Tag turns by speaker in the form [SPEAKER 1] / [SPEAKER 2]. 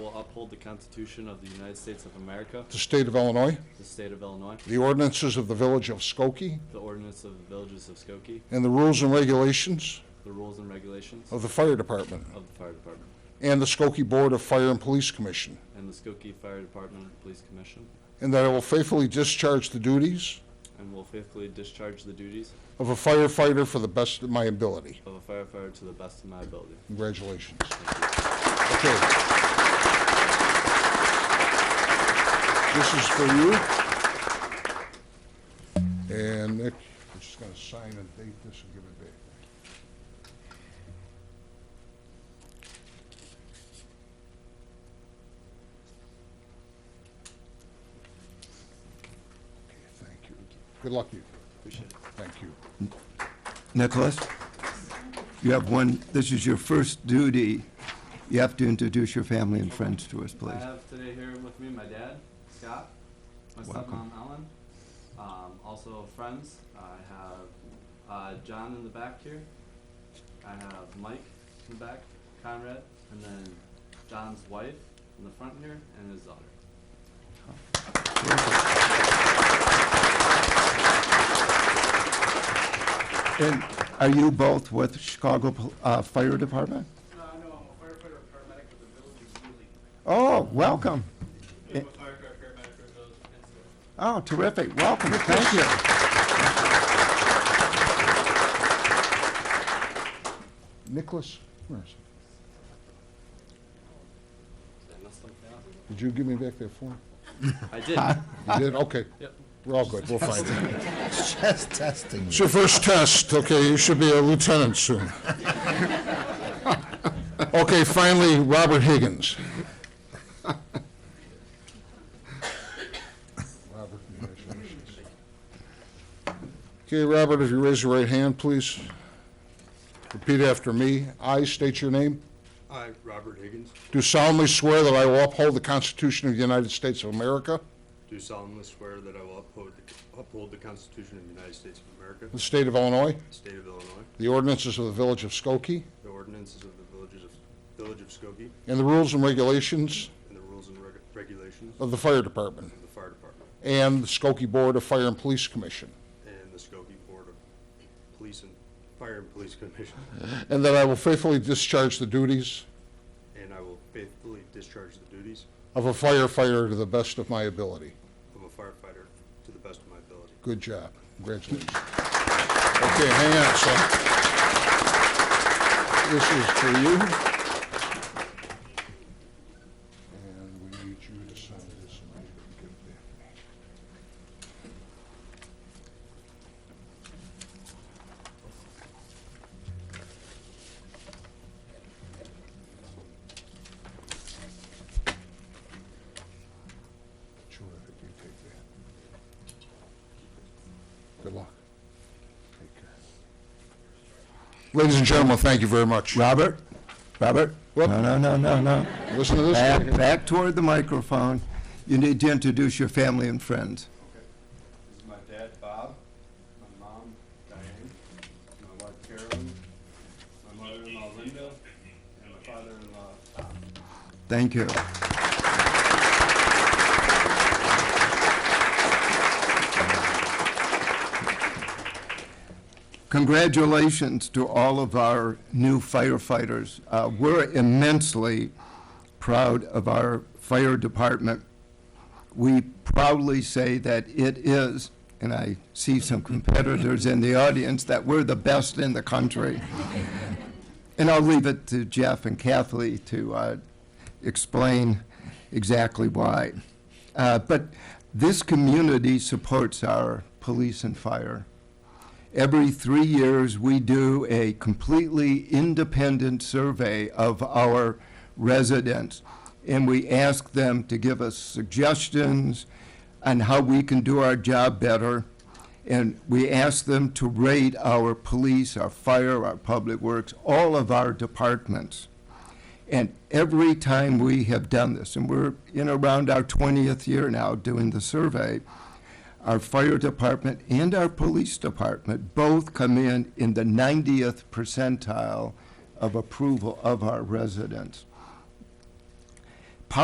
[SPEAKER 1] will uphold the Constitution of the United States of America,
[SPEAKER 2] the state of Illinois,
[SPEAKER 1] the state of Illinois,
[SPEAKER 2] the ordinances of the village of Skokie,
[SPEAKER 1] the ordinance of the villages of Skokie,
[SPEAKER 2] and the rules and regulations
[SPEAKER 1] the rules and regulations
[SPEAKER 2] of the fire department
[SPEAKER 1] of the fire department,
[SPEAKER 2] and the Skokie Board of Fire and Police Commission,
[SPEAKER 1] and the Skokie Fire Department Police Commission,
[SPEAKER 2] and that I will faithfully discharge the duties
[SPEAKER 1] and will faithfully discharge the duties
[SPEAKER 2] of a firefighter for the best of my ability.
[SPEAKER 1] of a firefighter to the best of my ability.
[SPEAKER 2] Congratulations.
[SPEAKER 1] Thank you.
[SPEAKER 2] Okay. This is for you. And Nick, I'm just gonna sign and date this and give it back. Okay, Thank you. Good luck to you. Appreciate it. Thank you.
[SPEAKER 3] Nicholas, you have one, this is your first duty. You have to introduce your family and friends to us,
[SPEAKER 1] I
[SPEAKER 3] please.
[SPEAKER 1] have today here with me my dad, Scott, my
[SPEAKER 3] Welcome.
[SPEAKER 1] stepmom, Ellen, um, also friends. I have uh, John in the back here. I have Mike in the back, Conrad, and then John's wife in the front here, and his daughter.
[SPEAKER 3] And are you both with Chicago Pol- uh, Fire Department?
[SPEAKER 4] Uh, No, no, I'm a firefighter and paramedic with the village of Ely.
[SPEAKER 3] Oh, welcome. Eh.
[SPEAKER 4] I'm a firefighter, paramedic with the village of Peninsula.
[SPEAKER 3] Oh, terrific, welcome, thank you.
[SPEAKER 2] Nicholas, where is it?
[SPEAKER 1] Did I mess something up?
[SPEAKER 2] Did you give me back that form?
[SPEAKER 1] I did.
[SPEAKER 2] You did? Okay.
[SPEAKER 1] Yep.
[SPEAKER 2] We're all good. We'll find it.
[SPEAKER 5] Just testing.
[SPEAKER 2] It's your first test, okay? You should be a lieutenant soon. Okay, finally, Robert Higgins. Robert, congratulations. Okay, Robert, if you raise your right hand, please. Repeat after me. I state your name.
[SPEAKER 6] I, Robert Higgins,
[SPEAKER 2] Do solemnly swear that I will uphold the Constitution of the United States of America,
[SPEAKER 6] do solemnly swear that I will uphold, the- uphold the Constitution of the United States of America,
[SPEAKER 2] the state of Illinois,
[SPEAKER 6] the state of Illinois,
[SPEAKER 2] the ordinances of the village of Skokie,
[SPEAKER 6] the ordinances of the villages of, village of Skokie,
[SPEAKER 2] and the rules and regulations
[SPEAKER 6] and the rules and reg- regulations
[SPEAKER 2] of the fire department.
[SPEAKER 6] of the fire department,
[SPEAKER 2] and the Skokie Board of Fire and Police Commission,
[SPEAKER 6] and the Skokie Board of Police and, Fire and Police Commission,
[SPEAKER 2] and that I will faithfully discharge the duties
[SPEAKER 6] and I will faithfully discharge the duties
[SPEAKER 2] of a firefighter to the best of my ability.
[SPEAKER 6] of a firefighter to the best of my ability.
[SPEAKER 2] Good job. Congratulations. Okay, hang on, son. This is for you. And we need you to sign this and I can give it back. Sure, if you take that. Good luck. Take care. Ladies and gentlemen, thank you very much.
[SPEAKER 3] Robert, Robert?
[SPEAKER 2] Whoop.
[SPEAKER 3] No, no, no, no, no.
[SPEAKER 2] Listen to this.
[SPEAKER 3] Back, back toward the microphone. You need to introduce your family and friends.
[SPEAKER 6] This is my dad, Bob, my mom, Diane, my wife, Carolyn, my mother-in-law, Linda, and my father-in-law, Tom.
[SPEAKER 3] Thank you. Congratulations to all of our new firefighters. Uh, We're immensely proud of our fire department. We proudly say that it is, and I see some competitors in the audience, that we're the best in the country. And I'll leave it to Jeff and Kathleen to uh, explain exactly why. Uh, But this community supports our police and fire. Every three years, we do a completely independent survey of our residents, and we ask them to give us suggestions on how we can do our job better. And we ask them to rate our police, our fire, our public works, all of our departments. And every time we have done this, and we're in around our 20th year now doing the survey, our fire department and our police department both come in in the 90th percentile of approval of our residents.